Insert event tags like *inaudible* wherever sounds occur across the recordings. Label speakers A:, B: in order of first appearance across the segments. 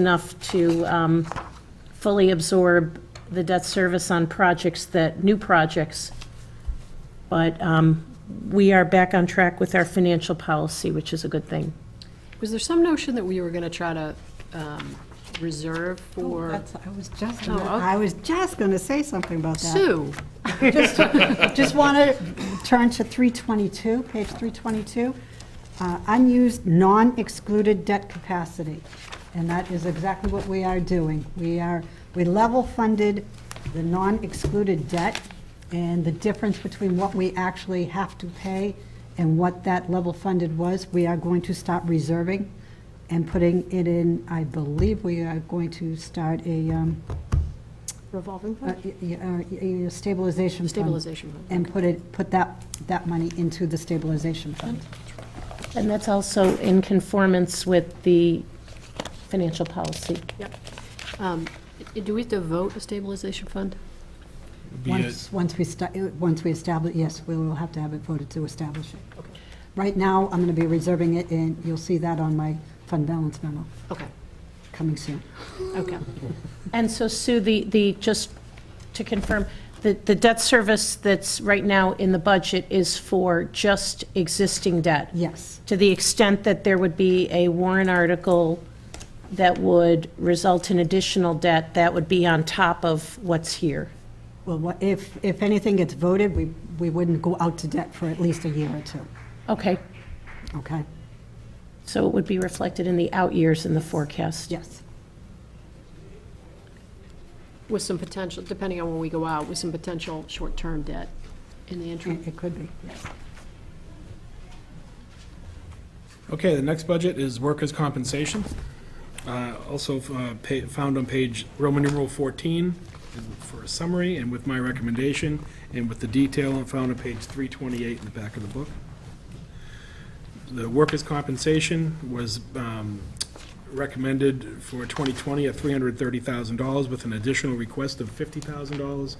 A: enough to um, fully absorb the debt service on projects that, new projects. But um, we are back on track with our financial policy, which is a good thing.
B: Was there some notion that we were going to try to um, reserve
C: Oh,
B: for
C: that's- I was just,
B: Oh,
C: gonna-
B: okay.
C: I was just going to say something about that.
B: Sue?
C: Just want to turn to 322, page 322, uh, unused, non-excluded debt capacity. And that is exactly what we are doing. We are, we level funded the non-excluded debt and the difference between what we actually have to pay and what that level funded was, we are going to stop reserving and putting it in, I believe we are going to start a, um,
B: Revolving
C: uh, y- y- uh, y- y- stabilization fund.
B: Stabilization fund.
C: And put it, put that, that money into the stabilization fund.
A: And that's also in conformance with the financial policy.
B: Yep. Um, i- Do we have to vote a stabilization fund?
D: Be it-
C: Once, once we, sta- uh, once we establish, yes, we will have to have it voted to establish it. Right now, I'm going to be reserving it, and you'll see that on my fund balance memo,
B: Okay,
C: coming soon.
B: okay.
A: And so Sue, the, the, just to confirm, the, the debt service that's right now in the budget is for just existing debt?
C: Yes,
A: to the extent that there would be a warrant article that would result in additional debt, that would be on top of what's here.
C: well, what- if, if anything gets voted, we, we wouldn't go out to debt for at least a year or two,
A: Okay,
C: okay?
A: so it would be reflected in the out years in the forecast.
C: Yes,
B: With some potential, depending on when we go out, with some potential short-term debt in the interim.
C: it it could be, yes.
D: Okay, the next budget is workers' compensation. Uh, Also uh, pa- found on page Roman numeral 14 and for a summary and with my recommendation and with the detail found on page 328 in the back of the book. The workers' compensation was um, recommended for 2020 at $330,000 with an additional request of $50,000.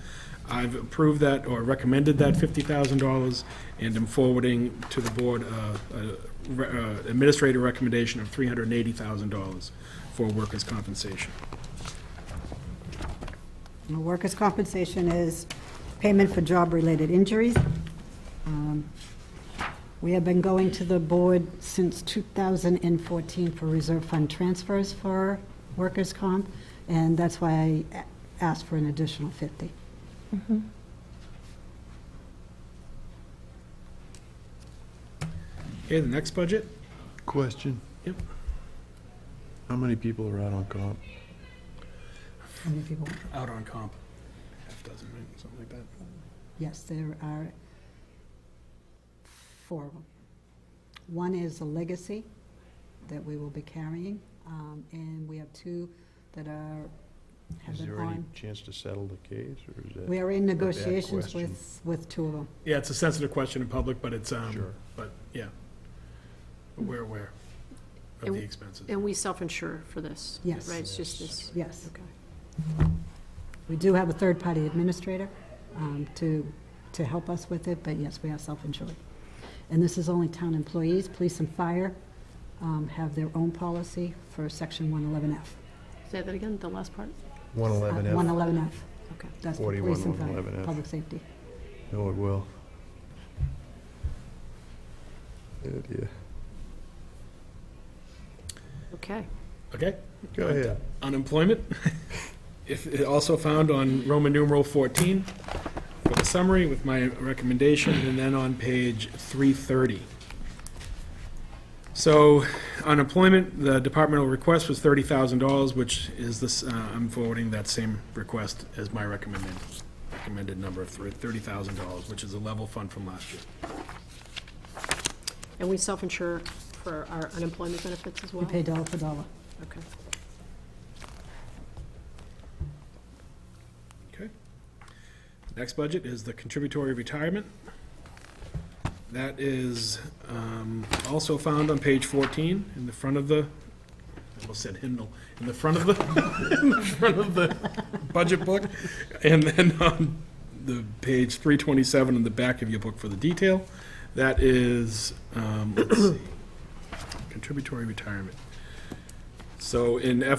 D: I've approved that or recommended that $50,000 and am forwarding to the board uh, a re- uh, administrative recommendation of $380,000 for workers' compensation.
C: Well, Workers' compensation is payment for job-related injuries. Um, We have been going to the board since 2014 for reserve fund transfers for workers' comp, and that's why I a- asked for an additional 50.
D: Okay, the next budget?
E: Question,
D: Yep.
E: how many people are out on comp?
C: How many people?
D: Out on comp. Half dozen, right, something like that.
C: Yes, there are four of them. One is a legacy that we will be carrying, um, and we have two that are, have
E: Is
C: been
E: there any
C: on.
E: chance to settle the case, or is that?
C: We are in
E: bad
C: negotiations
E: question.
C: with, with two of them.
D: Yeah, it's a sensitive question in public, but it's, um,
E: Sure.
D: but, yeah. But We're aware of the expenses.
B: And we self-insure for this?
C: Yes.
B: Right, it's just this,
C: Yes,
B: okay.
C: we do have a third-party administrator um, to, to help us with it, but yes, we are self-insured. And this is only town employees, police and fire um, have their own policy for Section 111F.
B: Say that again, the last part?
E: One
C: Uh,
E: eleven F,
C: 111F,
B: Okay.
C: that's for
E: 41,
C: police and fire,
E: 111F.
C: public safety.
E: oh, it will. Yeah, yeah.
B: Okay.
D: Okay?
E: Go ahead.
D: unemployment. *laughs* If, it also found on Roman numeral 14 for the summary with my recommendation, and then on page 330. So unemployment, the departmental request was $30,000, which is this, uh, I'm forwarding that same request as my recommended, recommended number of thr- $30,000, which is a level fund from last year.
B: And we self-insure for our unemployment benefits as well?
C: We pay dollar for dollar.
B: Okay.
D: Okay. Next budget is the contributory retirement. That is um, also found on page 14 in the front of the, I almost said hymnal, in the front of the, *laughs* in the front of the budget book. And then on the page 327 in the back of your book for the detail. That is, um, let's see, contributory retirement. So in